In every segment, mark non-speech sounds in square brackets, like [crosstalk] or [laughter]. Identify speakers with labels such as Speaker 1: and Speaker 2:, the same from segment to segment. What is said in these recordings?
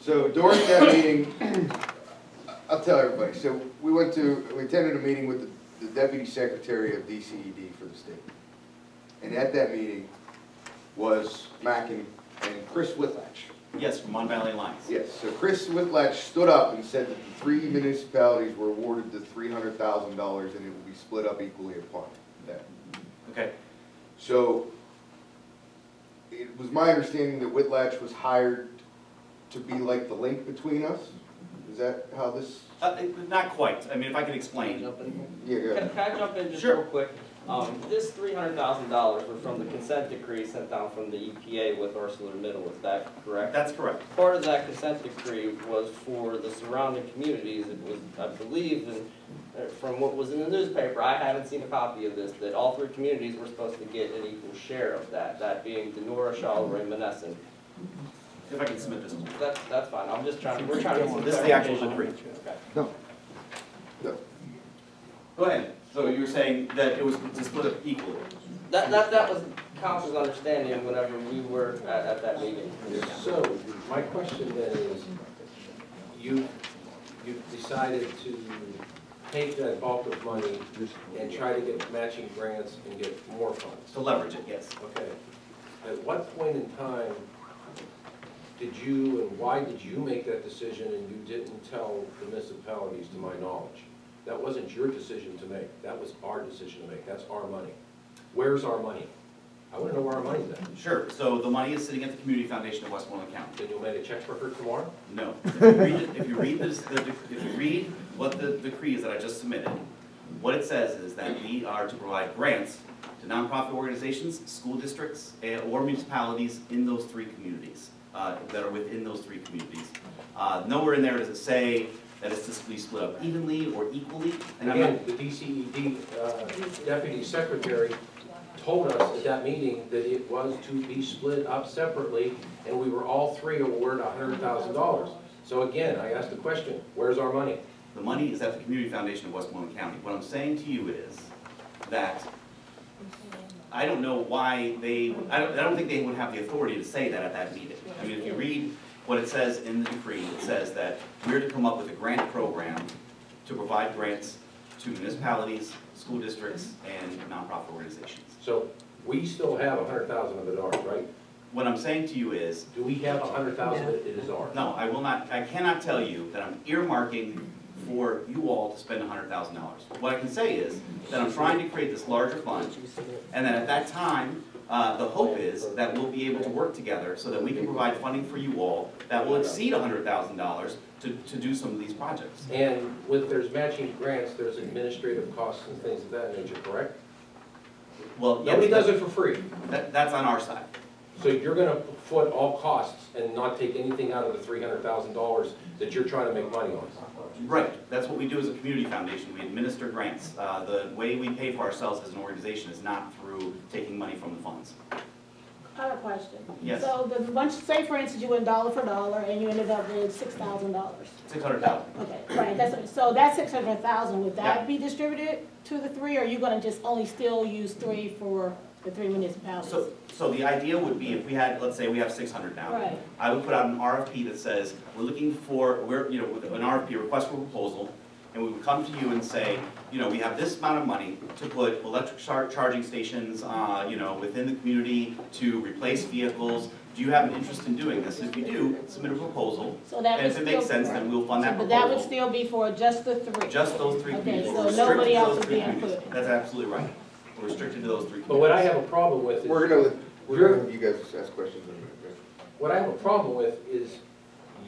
Speaker 1: So during that meeting, [clears throat] I'll tell everybody, so we went to, we attended a meeting with the- the deputy secretary of DCED for the state. And at that meeting was Mack and, and Chris Whitlatch.
Speaker 2: Yes, from Mon Valley Alliance.
Speaker 1: Yes, so Chris Whitlatch stood up and said that the three municipalities were awarded the three hundred thousand dollars and it will be split up equally upon that.
Speaker 2: Okay,
Speaker 1: So, it was my understanding that Whitlatch was hired to be like the link between us? Is that how this,
Speaker 2: Uh, it- not quite, I mean, if I can
Speaker 3: Can
Speaker 2: explain.
Speaker 1: yeah, go ahead.
Speaker 3: can I jump in just
Speaker 2: Sure.
Speaker 3: real quick? Um, this three hundred thousand dollars were from the consent decree sent down from the EPA with ArcelorMittal, is that correct?
Speaker 2: That's correct.
Speaker 3: Part of that consent decree was for the surrounding communities, it was, I believe, and uh, from what was in the newspaper, I haven't seen a copy of this, that all three communities were supposed to get an equal share of that, that being Denora, Charleroy, Monessen.
Speaker 2: If I can submit this. one.
Speaker 3: That's, that's fine, I'm just trying, we're trying to. get some
Speaker 2: This is the actual
Speaker 3: clarification.
Speaker 2: decree.
Speaker 3: Okay.
Speaker 2: Go ahead. So you were saying that it was to split up equally?
Speaker 3: That, that, that was council's understanding whenever we were at, at that meeting.
Speaker 4: So, my question then is, you, you've decided to take that bulk of money and try to get matching grants and get more funds.
Speaker 2: To leverage it, yes.
Speaker 4: Okay. At what point in time did you, and why did you make that decision and you didn't tell the municipalities, to my knowledge? That wasn't your decision to make, that was our decision to make, that's our money. Where's our money? I wanna know where our money's at.
Speaker 2: Sure, so the money is sitting at the Community Foundation of Westmoreland County.
Speaker 4: Then you'll make a check for her tomorrow?
Speaker 2: No. If you read it- If you read this, the dec- if you read what the decree is that I just submitted, what it says is that we are to provide grants to nonprofit organizations, school districts, eh, or municipalities in those three communities, uh, that are within those three communities. Uh, Nowhere in there does it say that it's to be split up evenly or equally. And I'm not-
Speaker 4: Again, the DCED uh, Deputy Secretary told us at that meeting that it was to be split up separately, and we were all three awarded hundred thousand dollars. So again, I asked the question, where's our money?
Speaker 2: The money is at the Community Foundation of Westmoreland County. What I'm saying to you is that I don't know why they, I don't, I don't think they would have the authority to say that at that meeting. I mean, if you read what it says in the decree, it says that we're to come up with a grant program to provide grants to municipalities, school districts, and nonprofit organizations.
Speaker 4: So we still have hundred thousand of it ours, right?
Speaker 2: What I'm saying to you is,
Speaker 4: Do we have hundred thousand that it is ours?
Speaker 2: No, I will not, I cannot tell you that I'm earmarking for you all to spend hundred thousand dollars. What I can say is that I'm trying to create this larger fund, and then at that time, uh, the hope is that we'll be able to work together so that we can provide funding for you all that will exceed hundred thousand dollars to, to do some of these projects.
Speaker 4: And with, there's matching grants, there's administrative costs and things of that nature, correct?
Speaker 2: Well, yes,
Speaker 4: Nobody does it for free,
Speaker 2: that, that's on our side.
Speaker 4: so you're gonna foot all costs and not take anything out of the three hundred thousand dollars that you're trying to make money on.
Speaker 2: Right, that's what we do as a community foundation, we administer grants. Uh, the way we pay for ourselves as an organization is not through taking money from the funds.
Speaker 5: I have a question.
Speaker 2: Yes.
Speaker 5: So the bunch, say for instance, you went dollar for dollar and you ended up with six thousand dollars.
Speaker 2: Six hundred thousand.
Speaker 5: Okay, right, that's, so that six hundred thousand, would that be distributed to the three, or are you gonna just only still use three for the three municipalities?
Speaker 2: So, so the idea would be if we had, let's say we have six hundred now.
Speaker 5: Right.
Speaker 2: I would put out an RFP that says, we're looking for, we're, you know, with an RFP, request for proposal, and we would come to you and say, you know, we have this amount of money to put electric char- charging stations, uh, you know, within the community to replace vehicles. Do you have an interest in doing this? If you do, submit a proposal,
Speaker 5: So that
Speaker 2: and
Speaker 5: would
Speaker 2: if
Speaker 5: still.
Speaker 2: it makes sense, then we'll fund that
Speaker 5: But that would
Speaker 2: proposal.
Speaker 5: still be for just the three?
Speaker 2: Just those three
Speaker 5: Okay,
Speaker 2: communities,
Speaker 5: so
Speaker 2: We're restricted
Speaker 5: nobody
Speaker 2: to
Speaker 5: else
Speaker 2: those
Speaker 5: would
Speaker 2: three
Speaker 5: be
Speaker 2: communities.
Speaker 5: included.
Speaker 2: That's absolutely right. We're restricted to those three communities.
Speaker 4: But what I have a problem with
Speaker 1: We're
Speaker 4: is,
Speaker 1: gonna, let- we're gonna, let you guys ask questions in a minute, right?
Speaker 4: what I have a problem with is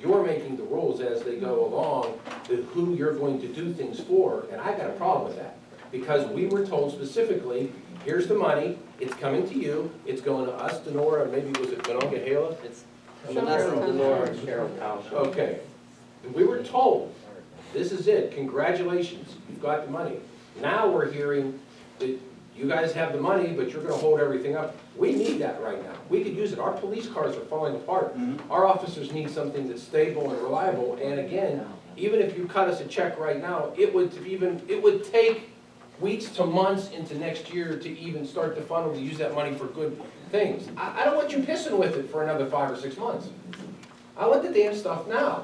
Speaker 4: you're making the rules as they go along, that who you're going to do things for, and I've got a problem with that. Because we were told specifically, here's the money, it's coming to you, it's going to us, Denora, maybe was it Monongahela?
Speaker 3: It's Monessen, Denora, and Carroll Township.
Speaker 4: Okay. And We were told, this is it, congratulations, you've got the money. Now we're hearing that you guys have the money, but you're gonna hold everything up. We need that right now. We could use it. Our police cars are falling apart.
Speaker 2: Mhm.
Speaker 4: Our officers need something that's stable and reliable. And again, even if you cut us a check right now, it would even, it would take weeks to months into next year to even start the funnel to use that money for good things. I, I don't want you pissing with it for another five or six months. I- I want the damn stuff now.